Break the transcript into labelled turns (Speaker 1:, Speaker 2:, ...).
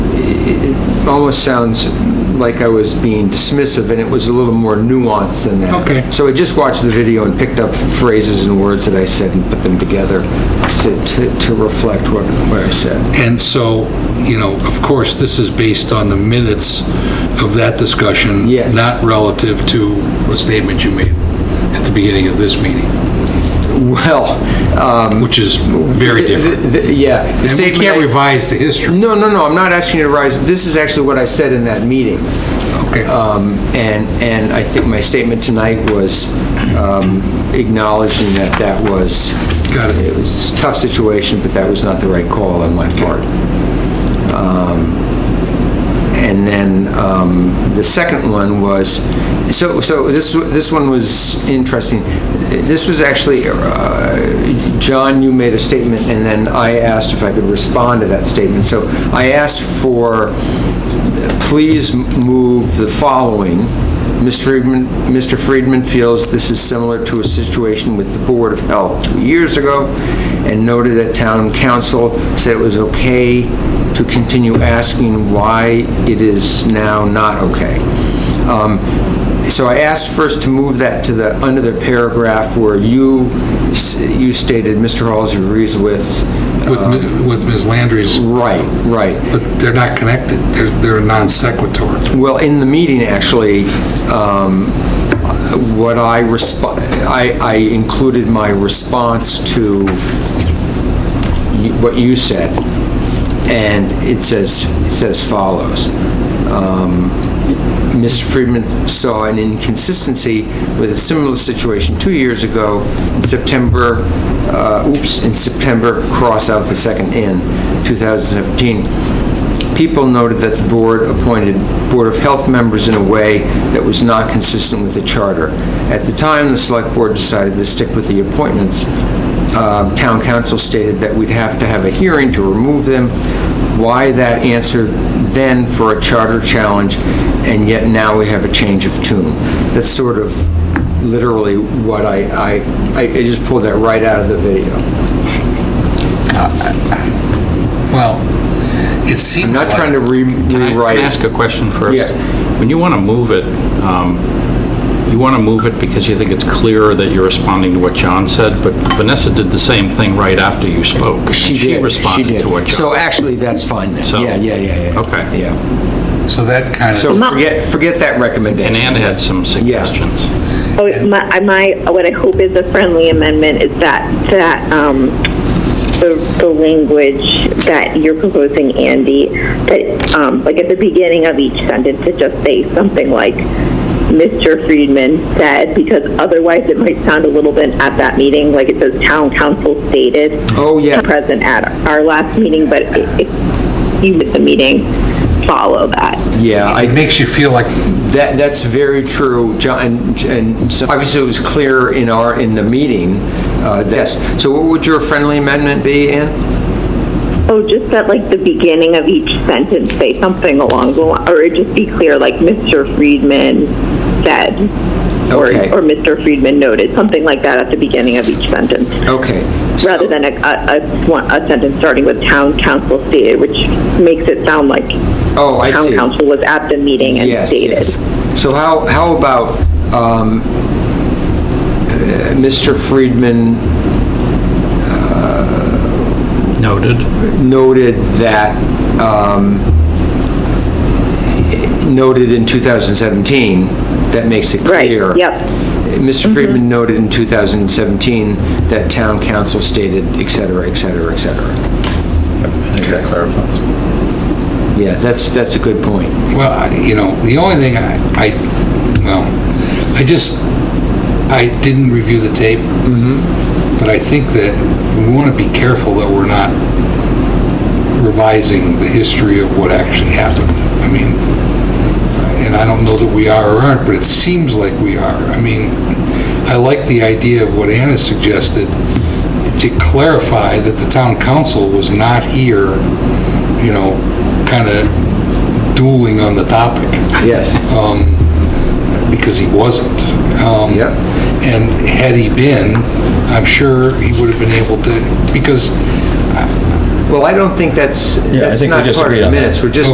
Speaker 1: almost sounds like I was being dismissive, and it was a little more nuanced than that.
Speaker 2: Okay.
Speaker 1: So I just watched the video and picked up phrases and words that I said and put them together to, to, to reflect what, what I said.
Speaker 2: And so, you know, of course, this is based on the minutes of that discussion.
Speaker 1: Yes.
Speaker 2: Not relative to a statement you made at the beginning of this meeting,
Speaker 1: Well, um...
Speaker 2: which is very
Speaker 1: the-
Speaker 2: different.
Speaker 1: the- the- Yeah. the
Speaker 2: And we
Speaker 1: statement
Speaker 2: can't
Speaker 1: I-
Speaker 2: revise the history.
Speaker 1: No, no, no, I'm not asking you to rise. This is actually what I said in that meeting.
Speaker 2: Okay.
Speaker 1: Um, And, and I think my statement tonight was um, acknowledging that that was,
Speaker 2: Got it.
Speaker 1: it was a tough situation, but that was not the right call on my part. Um, And then um, the second one was, so, so this, this one was interesting. This was actually, uh, John, you made a statement, and then I asked if I could respond to that statement. So I asked for, uh, please move the following. Mr. Friedman, Mr. Friedman feels this is similar to a situation with the Board of Health two years ago, and noted that town council said it was okay to continue asking why it is now not okay. Um, So I asked first to move that to the, under the paragraph where you, s- you stated Mr. Halsey agrees with.
Speaker 2: With Mi- With Ms. Landry's,
Speaker 1: Right, right.
Speaker 2: but they're not connected. They're they're a non sequitur.
Speaker 1: Well, in the meeting, actually, um, what I respond, I I included my response to you- what you said, and it says, it says follows. Um, Mr. Friedman saw an inconsistency with a similar situation two years ago in September, uh, oops, in September, cross out the second "in," 2017. People noted that the board appointed Board of Health members in a way that was not consistent with the charter. At the time, the select board decided to stick with the appointments. Um, Town council stated that we'd have to have a hearing to remove them. Why that answer then for a charter challenge, and yet now we have a change of tune? That's sort of literally what I, I, I I just pulled that right out of the video.
Speaker 2: Well, it seems
Speaker 1: I'm
Speaker 2: like...
Speaker 1: not trying to re-
Speaker 3: Can I-
Speaker 1: rewrite.
Speaker 3: Can I ask a question first?
Speaker 1: Yeah.
Speaker 3: When you want to move it, um, you want to move it because you think it's clearer that you're responding to what John said, but Vanessa did the same thing right after you spoke. and
Speaker 1: She did.
Speaker 3: She responded
Speaker 1: did.
Speaker 3: to what
Speaker 1: So
Speaker 3: John.
Speaker 1: actually, that's fine then.
Speaker 3: So-
Speaker 1: Yeah, yeah, yeah, yeah.
Speaker 3: Okay.
Speaker 1: Yeah.
Speaker 2: So that kind of...
Speaker 1: So forget, forget that recommendation.
Speaker 3: And Ann had some suggestions.
Speaker 4: Oh, my, my, what I hope is a friendly amendment is that, that, um, the, the language that you're proposing, Andy, that, um, like at the beginning of each sentence, to just say something like, Mr. Friedman said, because otherwise it might sound a little bit at that meeting, like it says town council stated.
Speaker 1: Oh, yeah.
Speaker 4: Present at our last meeting, but if if you at the meeting, follow that.
Speaker 1: Yeah,
Speaker 2: It
Speaker 1: I,
Speaker 2: makes you feel like
Speaker 1: that, that's very true, John, and so obviously it was clear in our, in the meeting, uh, yes. So what would your friendly amendment be, Ann?
Speaker 4: Oh, just at like the beginning of each sentence, say something along the line, or just be clear, like Mr. Friedman said, or,
Speaker 1: Okay.
Speaker 4: or Mr. Friedman noted, something like that at the beginning of each sentence,
Speaker 1: Okay. so-
Speaker 4: rather than a, a, a, one- a sentence starting with town council stated, which makes it sound like
Speaker 1: Oh, I see.
Speaker 4: town council was at the meeting and
Speaker 1: Yes,
Speaker 4: stated.
Speaker 1: yes. So how, how about um, uh, Mr. Friedman
Speaker 3: Noted.
Speaker 1: noted that, um, noted in 2017, that makes it
Speaker 4: Right,
Speaker 1: clear.
Speaker 4: yep. Mm-hmm.
Speaker 1: Mr. Friedman noted in 2017 that town council stated, et cetera, et cetera, et cetera.
Speaker 5: I think that clarifies.
Speaker 1: Yeah, that's, that's a good point.
Speaker 2: Well, I- you know, the only thing I, I, well, I just, I didn't review the tape. But I think that we want to be careful that we're not revising the history of what actually happened. I mean, and I don't know that we are or aren't, but it seems like we are. I mean, I like the idea of what Anna suggested, to clarify that the town council was not here, you know, kind of dueling on the topic
Speaker 1: Yes.
Speaker 2: um, because he wasn't. Um,
Speaker 1: Yep.
Speaker 2: And had he been, I'm sure he would have been able to, because
Speaker 1: Well, I don't think that's,
Speaker 5: Yeah, I
Speaker 1: that's
Speaker 5: think we
Speaker 1: not
Speaker 5: just
Speaker 1: part of
Speaker 5: agreed
Speaker 1: the
Speaker 5: on that.
Speaker 1: minutes. We're just